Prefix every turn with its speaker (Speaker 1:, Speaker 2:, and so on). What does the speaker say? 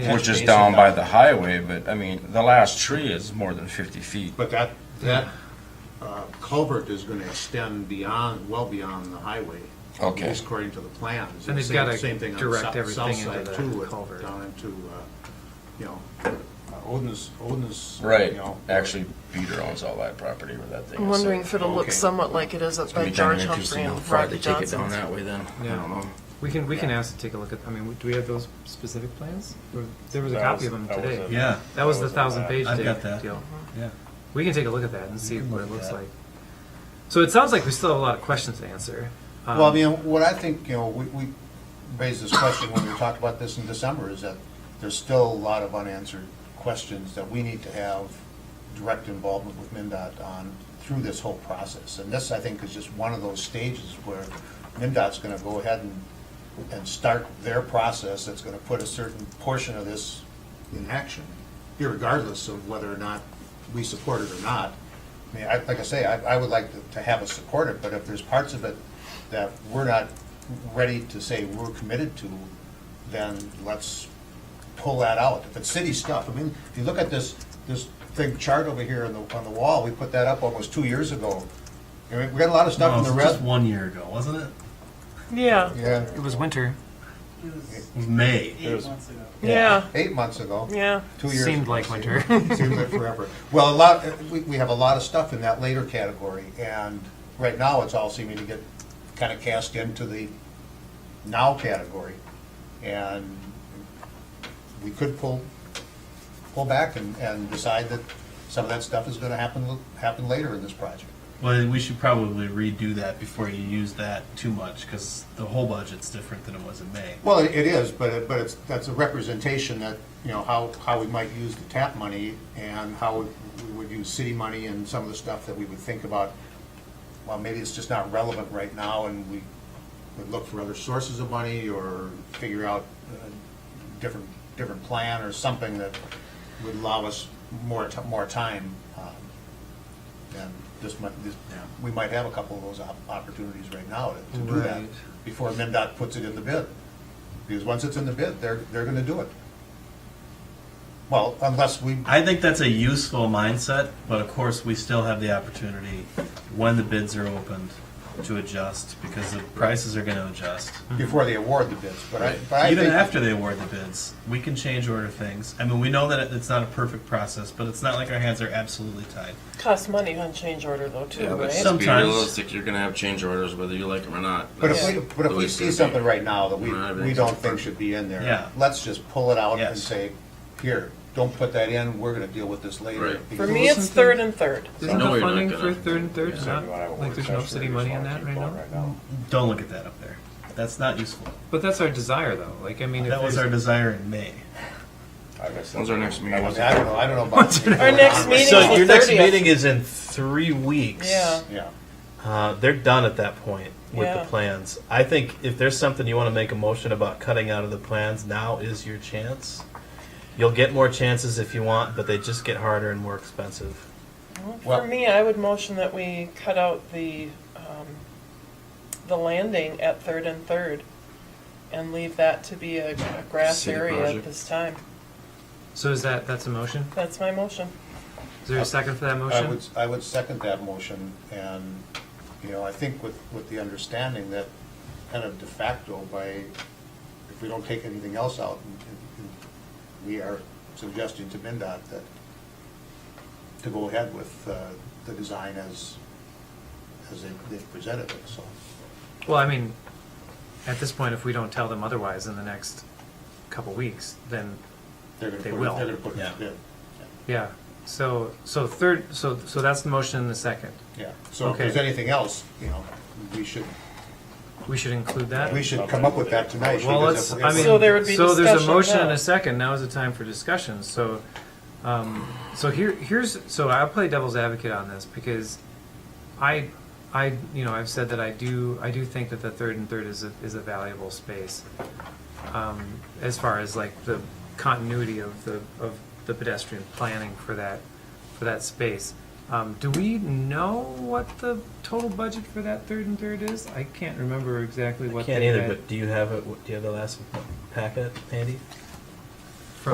Speaker 1: Which is down by the highway, but I mean, the last tree is more than fifty feet.
Speaker 2: But that, that uh, culvert is gonna extend beyond, well beyond the highway.
Speaker 1: Okay.
Speaker 2: At least according to the plans.
Speaker 3: And they've
Speaker 2: Same-
Speaker 3: gotta
Speaker 2: same thing on the
Speaker 3: direct
Speaker 2: south-
Speaker 3: everything
Speaker 2: south
Speaker 3: into
Speaker 2: side,
Speaker 3: the
Speaker 2: too, with-
Speaker 3: culvert.
Speaker 2: Down into, uh, you know, uh, Odin's, Odin's. you
Speaker 1: Right,
Speaker 2: know,
Speaker 1: actually, Peter owns all that property where that thing is.
Speaker 4: I'm wondering if it'll
Speaker 1: Okay.
Speaker 4: look somewhat like it is at
Speaker 1: It's gonna
Speaker 4: that
Speaker 1: be kinda
Speaker 4: George
Speaker 1: interesting
Speaker 4: Humphrey
Speaker 1: how
Speaker 4: and
Speaker 1: far they
Speaker 4: Rodney
Speaker 1: take it down
Speaker 4: Johnson's.
Speaker 1: that way then, I
Speaker 3: Yeah.
Speaker 1: don't know.
Speaker 3: We can, we can ask to take a look at, I mean, do we have those specific plans? Or- There was a
Speaker 5: That
Speaker 3: copy
Speaker 5: was-
Speaker 3: of them
Speaker 5: that was
Speaker 3: today.
Speaker 5: it.
Speaker 6: Yeah,
Speaker 3: That was
Speaker 5: that was
Speaker 3: the
Speaker 5: a lot.
Speaker 3: thousand page
Speaker 6: I've
Speaker 3: deal.
Speaker 6: got that.
Speaker 3: deal.
Speaker 6: yeah.
Speaker 3: We can take a look at that and see
Speaker 6: can
Speaker 3: what
Speaker 6: look
Speaker 3: it
Speaker 6: at
Speaker 3: looks
Speaker 6: that.
Speaker 3: like. So it sounds like we still have a lot of questions to answer. Um,
Speaker 2: Well, I mean, what I think, you know, we, we raised this question when we talked about this in December, is that there's still a lot of unanswered questions that we need to have direct involvement with MinDOT on through this whole process. And this, I think, is just one of those stages where MinDOT's gonna go ahead and, and start their process that's gonna put a certain portion of this in action, irregardless of whether or not we support it or not. I mean, I, like I say, I, I would like to- to have us support it, but if there's parts of it that we're not ready to say we're committed to, then let's pull that out. If it's city stuff, I mean, if you look at this, this big chart over here on the, on the wall, we put that up almost two years ago. I mean, We got a lot of stuff in
Speaker 6: No,
Speaker 2: the
Speaker 6: it was just
Speaker 2: red.
Speaker 6: one year ago, wasn't it?
Speaker 4: Yeah,
Speaker 2: Yeah,
Speaker 3: It was winter.
Speaker 7: It was
Speaker 6: It was May.
Speaker 7: eight months ago.
Speaker 4: yeah,
Speaker 2: eight months ago.
Speaker 4: yeah.
Speaker 2: two years.
Speaker 3: Seemed
Speaker 2: ago.
Speaker 3: like winter.
Speaker 2: Seemed like forever. Well, a lot, we, we have a lot of stuff in that later category, and right now, it's all seeming to get kind of cast into the now category. And we could pull, pull back and, and decide that some of that stuff is gonna happen, happen later in this project.
Speaker 6: Well, we should probably redo that before you use that too much, because the whole budget's different than it was in May.
Speaker 2: Well, it it is, but it, but it's, that's a representation that, you know, how, how we might use the TAP money and how we we would use city money and some of the stuff that we would think about. Well, maybe it's just not relevant right now and we would look for other sources of money or figure out a different, different plan or something that would allow us more, ti- more time. um, And this might, this, we might have a couple of those op- opportunities right now to to do that
Speaker 3: Right.
Speaker 2: before MnDOT puts it in the bid. Because once it's in the bid, they're, they're gonna do it. Well, unless we,
Speaker 6: I think that's a useful mindset, but of course, we still have the opportunity when the bids are opened to adjust, because the prices are gonna adjust.
Speaker 2: before they award the bids, but I, but I
Speaker 6: Mm-hmm. Even
Speaker 2: think-
Speaker 6: after they award the bids, we can change order things. I mean, we know that it's not a perfect process, but it's not like our hands are absolutely tied.
Speaker 4: Costs money on change order though too,
Speaker 1: Yeah, but
Speaker 4: right?
Speaker 6: some-
Speaker 1: let's be
Speaker 6: Sometimes-
Speaker 1: realistic, you're gonna have change orders whether you like them or not.
Speaker 2: But if
Speaker 1: That's
Speaker 2: we, but
Speaker 1: the
Speaker 2: if
Speaker 1: way
Speaker 2: we
Speaker 1: it's
Speaker 2: see
Speaker 1: gonna be.
Speaker 2: something right now that we,
Speaker 1: No, I think
Speaker 2: we
Speaker 1: it's
Speaker 2: don't
Speaker 1: perfect.
Speaker 2: think should be in
Speaker 6: Yeah.
Speaker 2: there, let's just pull it out and
Speaker 6: Yes.
Speaker 2: say, here, don't put that in, we're gonna deal with this later.
Speaker 1: Right.
Speaker 4: For
Speaker 2: Because
Speaker 4: me, it's third and third.
Speaker 3: Isn't
Speaker 1: No,
Speaker 3: the
Speaker 1: you're not
Speaker 3: funding
Speaker 1: gonna.
Speaker 3: for third and third
Speaker 1: Yeah.
Speaker 3: not, like there's no city money in that right now?
Speaker 6: Don't look at that up there. That's not useful.
Speaker 3: But that's our desire though, like, I mean. if
Speaker 6: That was our
Speaker 3: there's-
Speaker 6: desire in May.
Speaker 1: When's our next meeting?
Speaker 2: I mean, I don't know, I don't know about.
Speaker 4: Our next meeting is
Speaker 8: So
Speaker 4: the
Speaker 8: your next meeting
Speaker 4: thirtieth.
Speaker 8: is in three weeks.
Speaker 4: Yeah,
Speaker 2: Yeah,
Speaker 8: Uh, they're done at that point with
Speaker 4: Yeah.
Speaker 8: the plans. I think if there's something you want to make a motion about cutting out of the plans, now is your chance. You'll get more chances if you want, but they just get harder and more expensive.
Speaker 4: for me, I would motion that we cut out the, um, the landing at third and third and leave that to be a a grass
Speaker 1: City
Speaker 4: area at
Speaker 1: project.
Speaker 4: this time.
Speaker 3: So is that, that's a motion?
Speaker 4: That's my motion.
Speaker 3: Is there a second for that
Speaker 2: I would,
Speaker 3: motion?
Speaker 2: I would second that motion, and, you know, I think with, with the understanding that kind of de facto by, if we don't take anything else out, and- and- and we are suggesting to MinDOT that, to go ahead with uh, the design as, as they- they've presented it, so.
Speaker 3: Well, I mean, at this point, if we don't tell them otherwise in the next couple weeks, then
Speaker 2: they're gonna
Speaker 3: They
Speaker 2: put it-
Speaker 3: will.
Speaker 2: They're gonna put it
Speaker 6: Yeah.
Speaker 2: in the bid,
Speaker 3: Yeah, so, so third, so, so that's the motion and the second.
Speaker 2: yeah. So if
Speaker 3: Okay.
Speaker 2: there's anything else, you know, we should,
Speaker 3: We should include that?
Speaker 2: we should come up with that tonight.
Speaker 3: Well,
Speaker 2: because
Speaker 3: let's,
Speaker 2: if-
Speaker 3: I mean,
Speaker 4: So there would be
Speaker 3: so there's a
Speaker 4: discussion
Speaker 3: motion and
Speaker 4: now.
Speaker 3: a second, now is the time for discussion, so, um, so here, here's, so I'll play devil's advocate on this, because I, I, you know, I've said that I do, I do think that the third and third is a, is a valuable space. Um, as far as like the continuity of the, of the pedestrian planning for that, for that space. Um, do we know what the total budget for that third and third is? I can't remember exactly
Speaker 8: I
Speaker 3: what
Speaker 8: can't
Speaker 3: they
Speaker 8: either,
Speaker 3: had.
Speaker 8: but do you have it? Do you have the last packet, Andy?